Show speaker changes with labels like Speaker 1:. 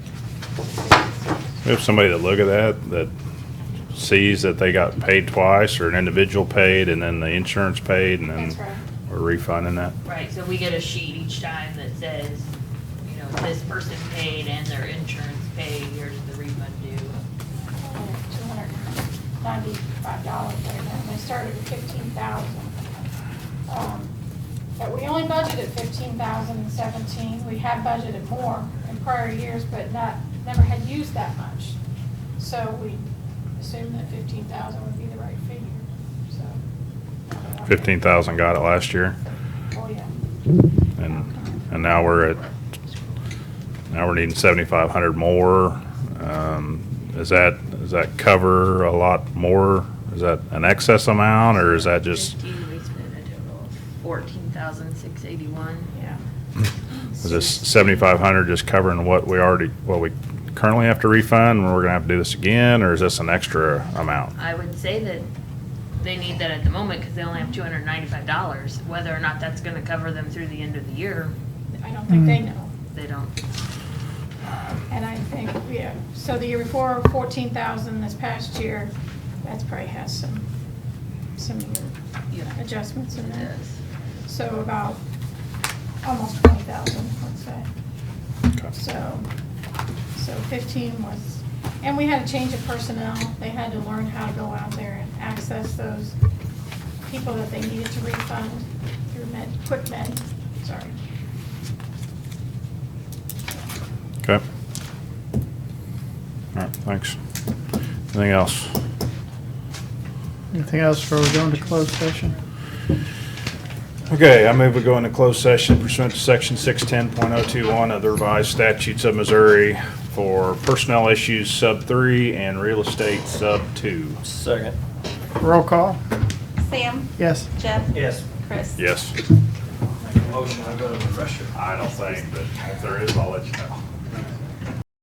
Speaker 1: We have somebody that look at that, that sees that they got paid twice, or an individual paid, and then the insurance paid, and
Speaker 2: That's right.
Speaker 1: then we're refunding that.
Speaker 3: Right, so we get a sheet each time that says, you know, this person paid and their insurance paid, here's the refund due.
Speaker 2: Two hundred ninety-five dollars right now, and they started at fifteen thousand. But we only budgeted fifteen thousand in seventeen, we had budgeted more in prior years, but not, never had used that much. So we assumed that fifteen thousand would be the right figure, so.
Speaker 1: Fifteen thousand got it last year,
Speaker 2: Oh, yeah.
Speaker 1: and, and now we're at, now we're needing seventy-five hundred more. Um, is that, does that cover a lot more? Is that an excess amount, or is that just,
Speaker 3: Fifteen, we spent a total of fourteen thousand six eighty-one.
Speaker 2: Yeah.
Speaker 1: is this seventy-five hundred just covering what we already, what we currently have to refund, and we're gonna have to do this again, or is this an extra amount?
Speaker 3: I would say that they need that at the moment, cause they only have two hundred ninety-five dollars. Whether or not that's gonna cover them through the end of the year,
Speaker 2: I don't think they know.
Speaker 3: they don't.
Speaker 2: And I think, yeah, so the year before, fourteen thousand, this past year, that's probably has some, some year
Speaker 3: Yeah.
Speaker 2: adjustments in
Speaker 3: It
Speaker 2: there.
Speaker 3: does.
Speaker 2: So about, almost twenty thousand, let's say.
Speaker 1: Okay.
Speaker 2: So, so fifteen was, and we had a change of personnel. They had to learn how to go out there and access those people that they needed to refund through med, quick med, sorry.
Speaker 1: Okay. All right, thanks. Anything else?
Speaker 4: Anything else before we go into closed session?
Speaker 1: Okay, I move we go into closed session pursuant to section six ten point oh two one of the revised statutes of Missouri for personnel issues sub three and real estate sub two.
Speaker 5: Second.
Speaker 4: Roll call?
Speaker 6: Sam,
Speaker 4: Yes.
Speaker 6: Jeff,
Speaker 5: Yes.
Speaker 6: Chris.
Speaker 1: Yes.
Speaker 5: Make a motion, I go to the pressure.
Speaker 1: I don't think, but if there is, I'll let you know.